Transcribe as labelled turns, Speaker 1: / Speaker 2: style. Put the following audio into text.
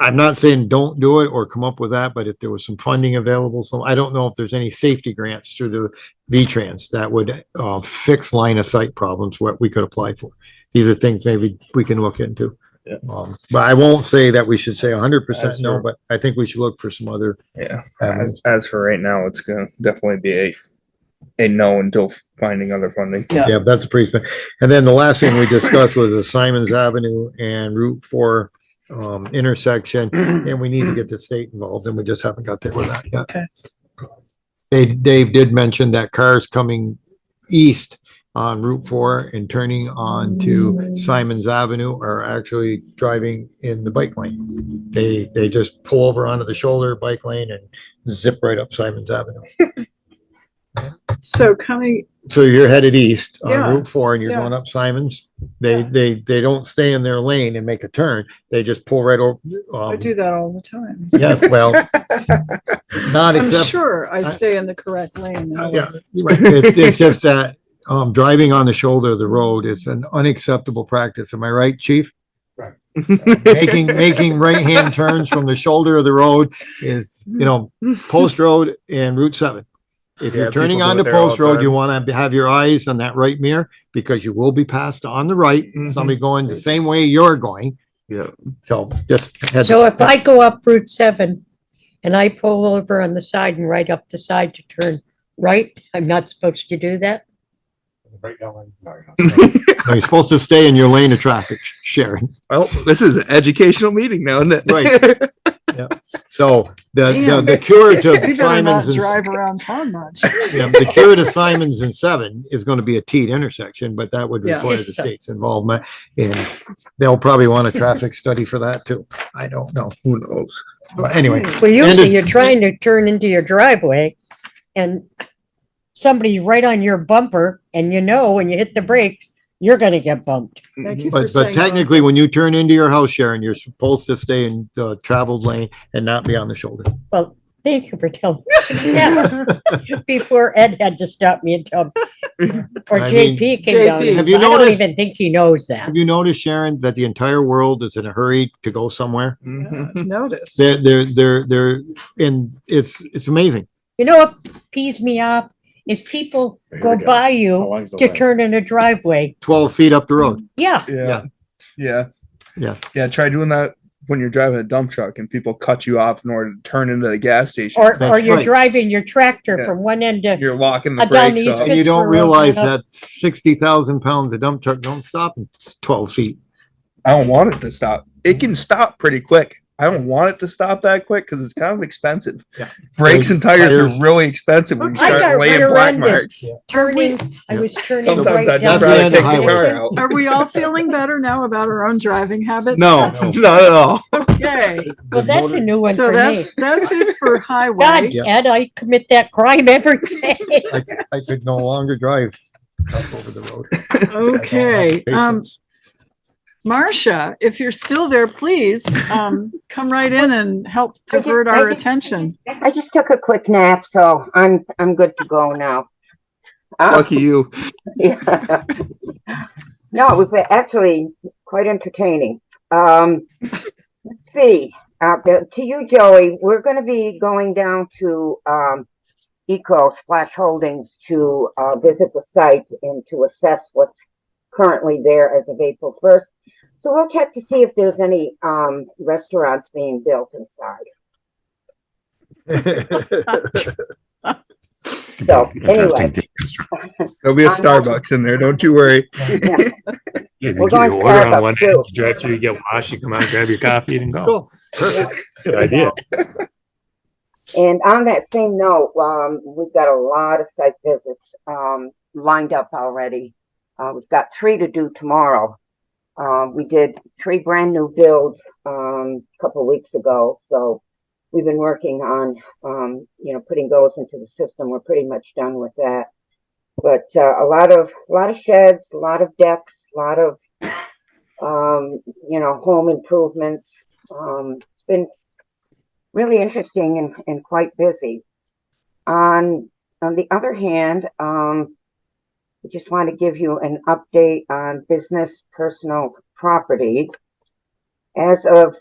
Speaker 1: I'm not saying don't do it or come up with that, but if there was some funding available, so I don't know if there's any safety grants through the V-Trans that would uh fix line of sight problems, what we could apply for. These are things maybe we can look into.
Speaker 2: Yeah.
Speaker 1: Um, but I won't say that we should say hundred percent
Speaker 2: That's
Speaker 1: no,
Speaker 2: true.
Speaker 1: but I think we should look for some other.
Speaker 2: Yeah.
Speaker 3: Um,
Speaker 1: avenues.
Speaker 2: As, as for right now, it's gonna definitely be a a no until finding other funding.
Speaker 1: Yeah, that's pretty, spe- and then the last thing we discussed was the Simons Avenue and Route Four um intersection, and we need to get the state involved, and we just haven't got there with that yet.
Speaker 4: Okay.
Speaker 1: Dave, Dave did mention that cars coming east on Route Four and turning on to Simons Avenue are actually driving in the bike lane. They, they just pull over onto the shoulder bike lane and zip right up Simons Avenue.
Speaker 4: So coming,
Speaker 1: So you're headed east on
Speaker 4: Yeah,
Speaker 1: Route Four and you're
Speaker 4: yeah.
Speaker 1: going up Simons. They,
Speaker 4: Yeah.
Speaker 1: they, they don't stay in their lane and make a turn. They just pull right over.
Speaker 4: I
Speaker 1: Um,
Speaker 4: do that all the time.
Speaker 1: yes, well, not
Speaker 4: I'm
Speaker 1: except,
Speaker 4: sure I stay in the correct lane.
Speaker 1: Uh, yeah. right, it's, it's just that, um, driving on the shoulder of the road is an unacceptable practice. Am I right, chief? Making, making right-hand turns from the shoulder of the road is, you know, Post Road and Route Seven. If
Speaker 2: Yeah,
Speaker 1: you're turning
Speaker 2: people do it
Speaker 1: onto
Speaker 2: there all the
Speaker 1: Post Road,
Speaker 2: time.
Speaker 1: you want to have your eyes on that right mirror because you will be passed on the right.
Speaker 2: Mhm.
Speaker 1: Somebody going the same way you're going.
Speaker 2: Yeah.
Speaker 1: So just. had-
Speaker 5: So if I go up Route seven and I pull over on the side and right up the side to turn right, I'm not supposed to do that?
Speaker 1: No, You're supposed to stay in your lane of traffic, Sharon.
Speaker 3: Well, Oh, this is an educational meeting now, isn't it?
Speaker 1: Right. So the, the- the cure to
Speaker 4: You better not
Speaker 1: Simon's and
Speaker 4: drive around town much.
Speaker 1: Yeah, the cure to Simons and Seven is gonna be a T intersection, but that would
Speaker 4: Yeah.
Speaker 1: require the state's involvement. And they'll probably want a traffic study for that too. I don't know. Who knows? But anyway,
Speaker 5: Well, usually
Speaker 1: it-
Speaker 5: you're trying to turn into your driveway and somebody's right on your bumper and you know, when you hit the brakes, you're gonna get bumped.
Speaker 4: Thank you for
Speaker 1: but,
Speaker 4: saying.
Speaker 1: but technically, when you turn into your house, Sharon, you're supposed to stay in the traveled lane and not be on the shoulder.
Speaker 5: Well, thank you for telling. me that Before Ed had to stop me and tell, or
Speaker 1: I mean-
Speaker 5: JP came down.
Speaker 4: JP.
Speaker 5: I
Speaker 1: Have you
Speaker 5: don't
Speaker 1: noticed-
Speaker 5: even think he knows that.
Speaker 1: Have you noticed, Sharon, that the entire world is in a hurry to go somewhere?
Speaker 2: Mm-hmm.
Speaker 4: that.
Speaker 3: Mm-hmm.
Speaker 4: Yeah, I've Noticed.
Speaker 1: They're, they're, they're, they're, and it's, it's amazing.
Speaker 5: You know what pees me off is people
Speaker 2: Here
Speaker 5: go
Speaker 2: we go.
Speaker 5: by you to turn in a driveway.
Speaker 1: Twelve feet up the road.
Speaker 5: Yeah,
Speaker 2: Yeah. Yeah.
Speaker 1: Yes.
Speaker 2: Yeah. Try doing that when you're driving a dump truck and people cut you off in order to turn into the gas station.
Speaker 5: or, or
Speaker 1: That's
Speaker 5: you're
Speaker 1: right.
Speaker 5: driving your tractor
Speaker 2: Yeah.
Speaker 5: from one end
Speaker 4: Oh,
Speaker 5: to,
Speaker 2: you're locking the
Speaker 5: Uh, down
Speaker 2: brakes
Speaker 5: these
Speaker 2: up.
Speaker 1: And you don't
Speaker 5: Pittsburgh opened
Speaker 1: realize
Speaker 5: up-
Speaker 1: that sixty thousand pounds of dump truck don't stop in s- twelve feet.
Speaker 2: I don't want it to stop. It can stop pretty quick. I don't want it to stop that quick because it's kind of expensive.
Speaker 1: Yeah.
Speaker 2: Brakes and tires
Speaker 1: Tires.
Speaker 2: are really expensive when you
Speaker 4: I got
Speaker 2: start laying
Speaker 5: rear-ended.
Speaker 2: black marks.
Speaker 5: turning, I was turning
Speaker 2: Sometimes
Speaker 5: right
Speaker 2: I'd
Speaker 1: That's
Speaker 5: down.
Speaker 1: the
Speaker 2: rather
Speaker 1: end
Speaker 2: take
Speaker 1: of
Speaker 2: the
Speaker 1: highway.
Speaker 2: car out.
Speaker 4: Are we all feeling better now about our own driving habits?
Speaker 2: No,
Speaker 1: No.
Speaker 2: not at all.
Speaker 4: Yay.
Speaker 5: Well, that's a new one
Speaker 4: So
Speaker 5: for me.
Speaker 4: that's, that's it for
Speaker 5: God,
Speaker 4: highway.
Speaker 1: Yeah.
Speaker 5: Ed, I commit that crime every day.
Speaker 1: I, I could no longer drive up over the road.
Speaker 4: Okay. Um, Marcia, if you're still there, please, um, come right in and help
Speaker 6: I did-
Speaker 4: divert
Speaker 6: I
Speaker 4: our
Speaker 6: did-
Speaker 4: attention.
Speaker 6: I just took a quick nap, so I'm I'm good to go now. Uh,
Speaker 3: Lucky you.
Speaker 6: yeah. No, it was actually quite entertaining. Um, let's see. Uh, the- to you, Joey, we're going to be going down to um, Eco Splash Holdings to uh, visit the site and to assess what's currently there as of April 1st. So we'll check to see if there's any um, restaurants being built inside. So, anyway,
Speaker 2: There'll be a Starbucks in there. Don't you worry.
Speaker 7: Yeah, they
Speaker 6: We're
Speaker 7: give you
Speaker 6: going
Speaker 7: an order
Speaker 6: Starbucks,
Speaker 7: on one end,
Speaker 6: too.
Speaker 7: you drive through, you get washed, you come out, grab your coffee and go.
Speaker 1: Cool.
Speaker 7: Good idea.
Speaker 6: And on that same note, um, we've got a lot of site visits, um, lined up already. Uh, we've got three to do tomorrow. Um, we did three brand new builds, um, a couple weeks ago, so we've been working on, um, you know, putting those into the system. We're pretty much done with that. But, uh, a lot of, a lot of sheds, a lot of decks, a lot of, um, you know, home improvements. Um, it's been really interesting and, and quite busy. On on the other hand, um, I just want to give you an update on business personal property. As of